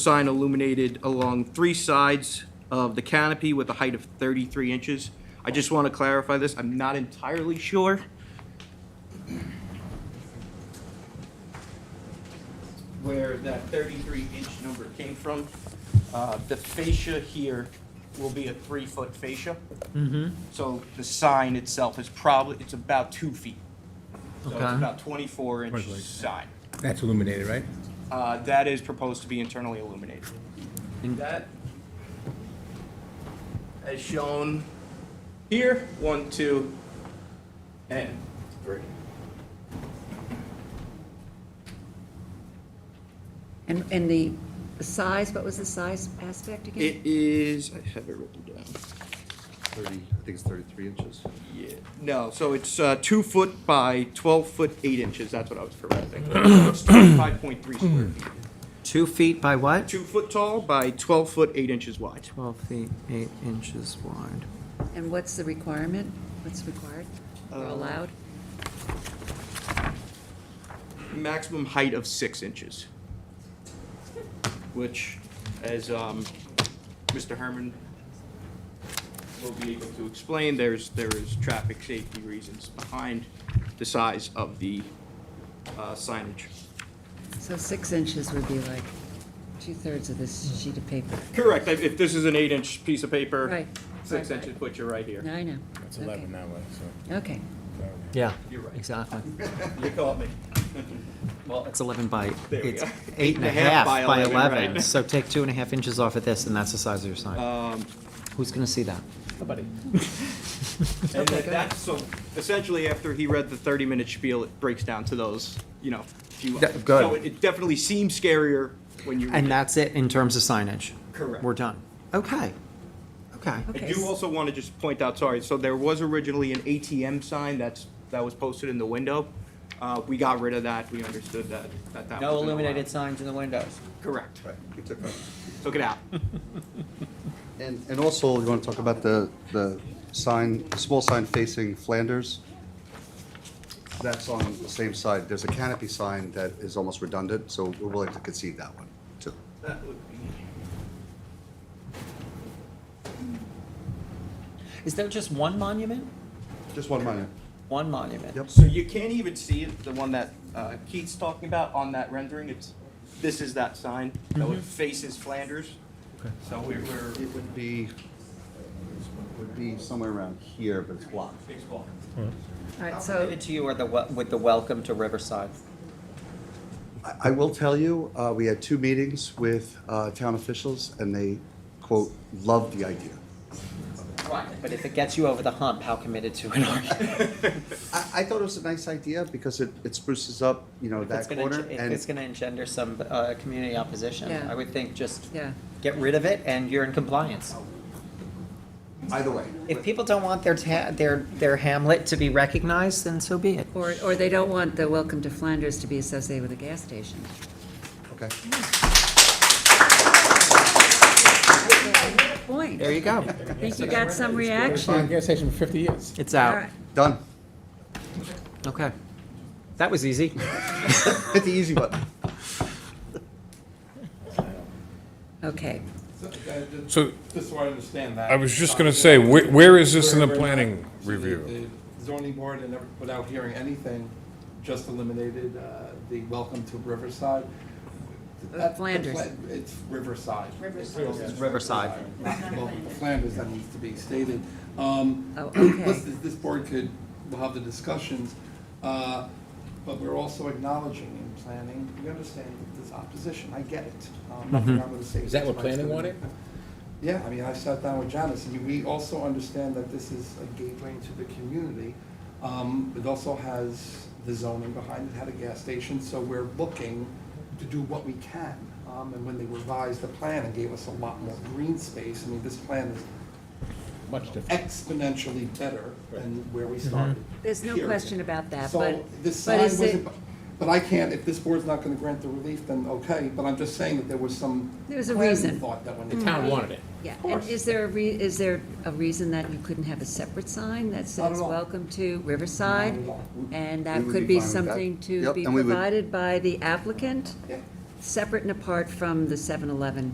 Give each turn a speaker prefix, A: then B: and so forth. A: sign illuminated along three sides of the canopy with a height of 33 inches. I just want to clarify this, I'm not entirely sure. Where that 33-inch number came from. Uh, The fascia here will be a three-foot fascia. So the sign itself is probably, it's about two feet. So it's
B: Okay.
A: about 24-inch sign.
C: That's illuminated, right?
A: Uh, That is proposed to be internally illuminated. That, as shown here, one, two, and three.
D: And, and the the size, what was the size aspect again?
A: It is, I have it written down.
E: 30, I think it's 33 inches.
A: Yeah, no, so it's uh, two foot by 12 foot 8 inches, that's what I was correcting. It's 25.3 square feet.
B: Two feet by what?
A: Two foot tall by 12 foot 8 inches wide.
B: Twelve feet, eight inches wide.
D: And what's the requirement? What's required or
A: Uh,
D: allowed?
A: maximum height of six inches, which, as um, Mr. Herman will be able to explain, there's, there is traffic safety reasons behind the size of the uh, signage.
D: So six inches would be like two-thirds of
C: Hmm.
D: this sheet of paper.
A: Correct, if if this is an eight-inch piece of paper,
D: Right.
A: six
D: Right.
A: inches, put you right here.
D: No, I know.
C: That's
D: Okay.
C: 11 that way, so.
D: Okay,
B: Yeah,
A: You're right.
B: exactly.
A: You caught me.
B: Well, it's eleven by,
A: There we
B: it's
A: go.
B: eight and a half by eleven,
A: right.
B: so take two and a half inches off of this, and that's the size of your sign. Who's gonna see that?
A: And that- that's, so essentially, after he read the 30-minute spiel, it breaks down to those, you know, few.
B: Yeah, good.
A: So it- it definitely seems scarier when you. read it.
B: And that's it in terms of signage?
A: Correct.
B: We're done. Okay, okay.
A: I
D: Okay,
A: do
D: s-
A: also want to just point out, sorry, so there was originally an ATM sign that's, that was posted in the window. Uh, we got rid of that, we understood that, that that. wasn't allowed.
B: signs in the windows.
A: Correct,
E: Right.
A: took it out.
E: And, and also, you want to talk about the, the sign, the small sign facing Flanders? That's on the same side. There's a canopy sign that is almost redundant, so we're willing to concede that one, too.
A: That would be.
B: Is there just one monument?
E: Just one minor.
B: One monument?
E: Yep.
A: So you can't even see it, the one that uh, Keith's talking about on that rendering, it's, this is that sign, though it faces Flanders. So we we're,
E: It would be, would be somewhere around here, but it's blocked.
A: it's blocked.
D: all right, so,
B: to you or the, with the welcome to Riverside?
E: I- I will tell you, uh, we had two meetings with uh, town officials, and they, quote, "loved the idea."
B: Right. But if it gets you over the hump, how committed to it are you?
E: I, I thought it was a nice idea because it, it spruces up, you know,
B: It's
E: that
B: gonna
E: corner.
B: enge- it-
E: and
B: It's gonna engender some, uh, community opposition.
D: Yeah.
B: I would think just
D: yeah,
B: get rid of it and you're in compliance.
E: Either way.
B: If people don't want their ta, their, their hamlet to be recognized, then so be it.
D: or, or they don't want the Welcome to Flanders to be associated with a gas station.
E: Okay.
D: Point.
B: There
D: I
B: you go.
D: think you got some
C: It's been a
D: reaction.
C: gas station for 50 years.
B: It's
D: All
B: out.
D: right.
E: Done.
B: Okay. That was easy.
E: Hit the easy button.
D: Okay,
F: So
G: uh, Just so I understand that.
F: I was just going to say, where where is this in the
G: Where we're not-
F: planning
G: so the-
F: review?
G: the Zoning board and, every- without hearing anything, just eliminated uh, the welcome to Riverside. That's the
D: Flanders.
G: Flan- It's Riverside. Riverside.
B: Riverside.
G: Not welcome to Flanders, that needs to be stated. Um,
D: Oh, okay.
G: Listen, this board could, we'll have the discussions, uh, but we're also acknowledging in planning, we understand that there's opposition, I get it. Um, Nothing
F: Mm-hmm.
G: I'm gonna say.
C: Is that what
G: It's my-
C: planning wanted?
G: yeah, I mean, I sat down with Janice, and we also understand that this is a gateway into the community. Um, It also has the zoning behind it, had a gas station, so we're looking to do what we can. Um, And when they revised the plan and gave us a lot more green space, I mean, this plan is
C: Much different.
G: exponentially better than where we started.
D: there's no
G: Period.
D: question about that, Mm-hmm. but,
G: So the sign
D: but is it,
G: wasn't, but I can't, if this board's not gonna grant the relief, then okay, but I'm just saying that there was some.
D: There was a
G: planning
D: reason.
G: Thought that when.
C: The town wanted it.
D: yeah, and
G: course.
D: is there a re, is there a reason that you couldn't have a separate sign that
G: Not at
D: says,
G: all.
D: welcome to Riverside?
G: Not at all.
D: And
E: We
D: that
E: would
D: could
E: be
D: be
E: fine with that.
D: something to
E: Yep,
D: be
E: and we would-
D: provided by the applicant?
G: Yeah.
D: separate and apart from the 7-Eleven